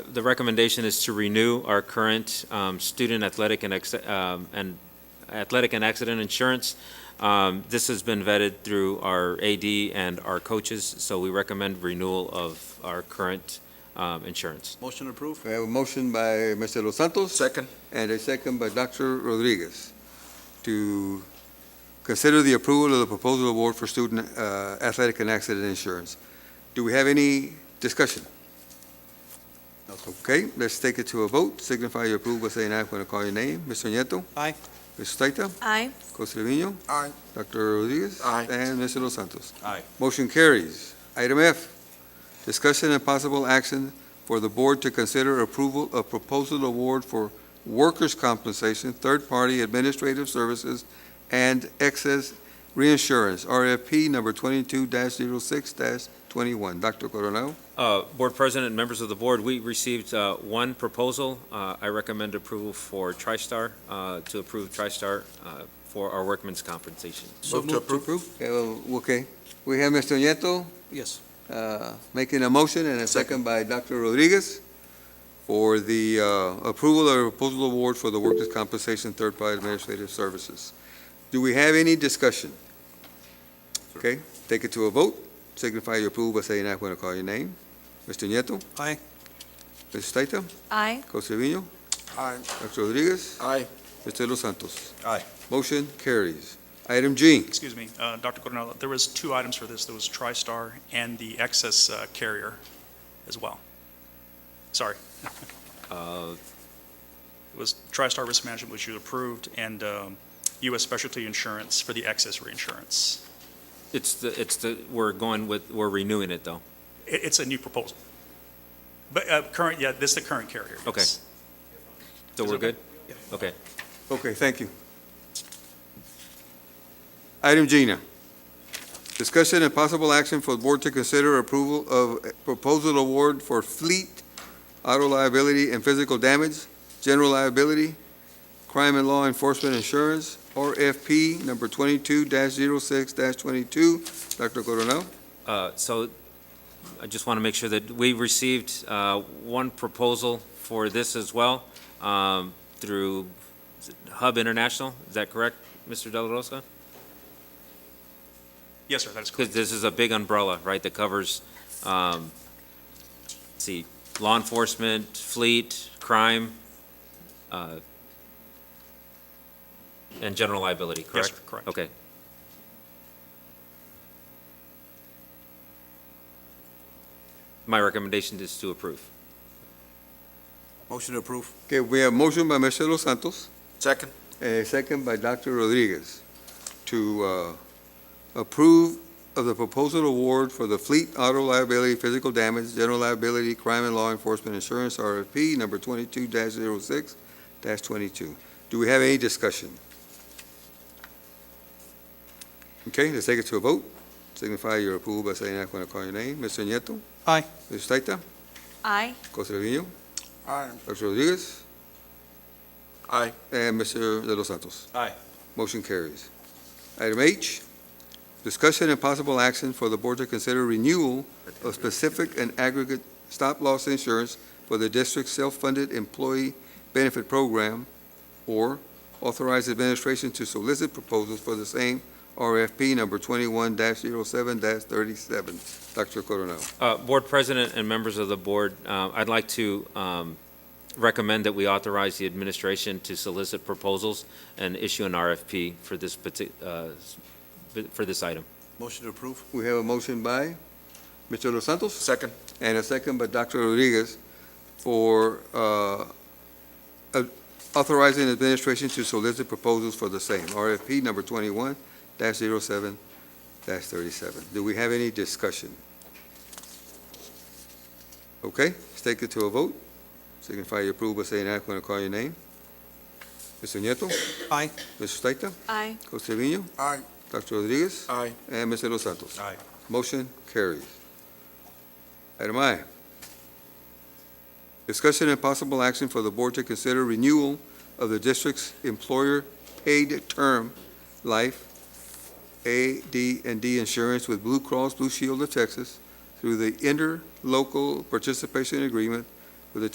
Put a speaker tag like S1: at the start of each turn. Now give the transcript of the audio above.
S1: The recommendation is to renew our current um, student athletic and, ex- um, and athletic and accident insurance. Um, This has been vetted through our AD and our coaches, so we recommend renewal of our current um, insurance.
S2: Motion approved.
S3: We have a motion by Mr. Los Santos.
S2: Second.
S3: And a second by Dr. Rodriguez to consider the approval of the proposal award for student uh, athletic and accident insurance. Do we have any discussion? Okay, let's take it to a vote. Signify your approval by saying aye when I call your name. Mr. Nieto.
S2: Aye.
S3: Mr. Staita.
S4: Aye.
S3: Costa Trevino.
S2: Aye.
S3: Dr. Rodriguez.
S2: Aye.
S3: And Mr. Los Santos.
S2: Aye.
S3: Motion carries. Item F, discussion and possible action for the board to consider approval of proposal award for workers' compensation, third-party administrative services, and excess reinsurance, RFP number 22-06-21. Dr. Coronel,
S1: Uh, Board President and members of the board, we received uh, one proposal. Uh, I recommend approval for TriStar, uh, to approve TriStar uh, for our workman's compensation.
S2: Move to approve.
S3: Okay, well, Okay, we have Mr. Nieto
S2: Yes.
S3: uh, making a motion and a second by Dr. Rodriguez for the uh, approval of proposal award for the workers' compensation third-party administrative services. Do we have any discussion? Okay, take it to a vote. Signify your approval by saying aye when I call your name. Mr. Nieto.
S2: Aye.
S3: Mr. Staita.
S4: Aye.
S3: Costeño.
S2: Aye.
S3: Dr. Rodriguez.
S2: Aye.
S3: Mr. Los Santos.
S2: Aye.
S3: Motion carries. Item G.
S5: Excuse me, uh, Dr. Coronel, there was two items for this. There was TriStar and the excess uh, carrier as well. Sorry.
S1: Uh,
S5: It was TriStar Risk Management, which you approved, and um, U.S. Specialty Insurance for the excess reinsurance.
S1: It's the, it's the, we're going with, we're renewing it, though.
S5: It- It's a new proposal. But uh, current, yeah, this is the current carrier.
S1: Okay. So
S5: yes. Is it
S1: we're
S5: okay?
S1: good? Okay.
S3: Okay, thank you. Item G now. Discussion and possible action for the board to consider approval of a proposal award for fleet, auto liability and physical damage, general liability, crime and law enforcement insurance, RFP number twenty-two 6 twenty-two. Dr. Coronel?
S1: Uh, So I just want to make sure that we received uh, one proposal for this as well um, through is it Hub International. Is that correct, Mr. Dela Rosa?
S5: Yes, sir, that is
S1: Because
S5: correct.
S1: this is a big umbrella, right, that covers, um, let's see, law enforcement, fleet, crime, uh, and general liability,
S5: Yes,
S1: correct?
S5: sir, correct.
S1: Okay. My recommendation is to approve.
S2: Motion approved.
S3: Okay, we have motion by Mr. Los Santos.
S2: Second.
S3: A second by Dr. Rodriguez to uh, approve of the proposal award for the Fleet Auto Liability Physical Damage General Liability Crime and Law Enforcement Insurance RFP number 22-06-22. Do we have any discussion? Okay, let's take it to a vote. Signify your approval by saying aye when I call your name. Mr. Nieto.
S2: Aye.
S3: Mr. Staita.
S4: Aye.
S3: Costa Trevino.
S2: Aye.
S3: Dr. Rodriguez.
S2: Aye.
S3: And Mr. De Los Santos?
S2: Aye.
S3: Motion carries. Item H, discussion and possible action for the board to consider renewal of specific and aggregate stop-loss insurance for the district's self-funded employee benefit program, or authorize administration to solicit proposals for the same RFP number 21-07-37. Dr. Coronel.
S1: Uh, Board President and members of the board, uh, I'd like to um, recommend that we authorize the administration to solicit proposals and issue an RFP for this, parti- uh, for this item.
S2: Motion approved.
S3: We have a motion by Mr. Los Santos?
S2: Second.
S3: and a second by Dr. Rodriguez for uh, uh, authorizing administration to solicit proposals for the same, RFP number 21-07-37. Do we have any discussion? Okay, let's take it to a vote. Signify your approval by saying aye when I call your name. Mr. Nieto.
S2: Aye.
S3: Mr. Staita.
S4: Aye.
S3: Costeño.
S2: Aye.
S3: Dr. Rodriguez.
S2: Aye.
S3: And Mr. Los Santos.
S2: Aye.
S3: Motion carries. Item I. Discussion and possible action for the board to consider renewal of the district's employer paid term life AD and D insurance with Blue Cross Blue Shield of Texas through the interlocal participation agreement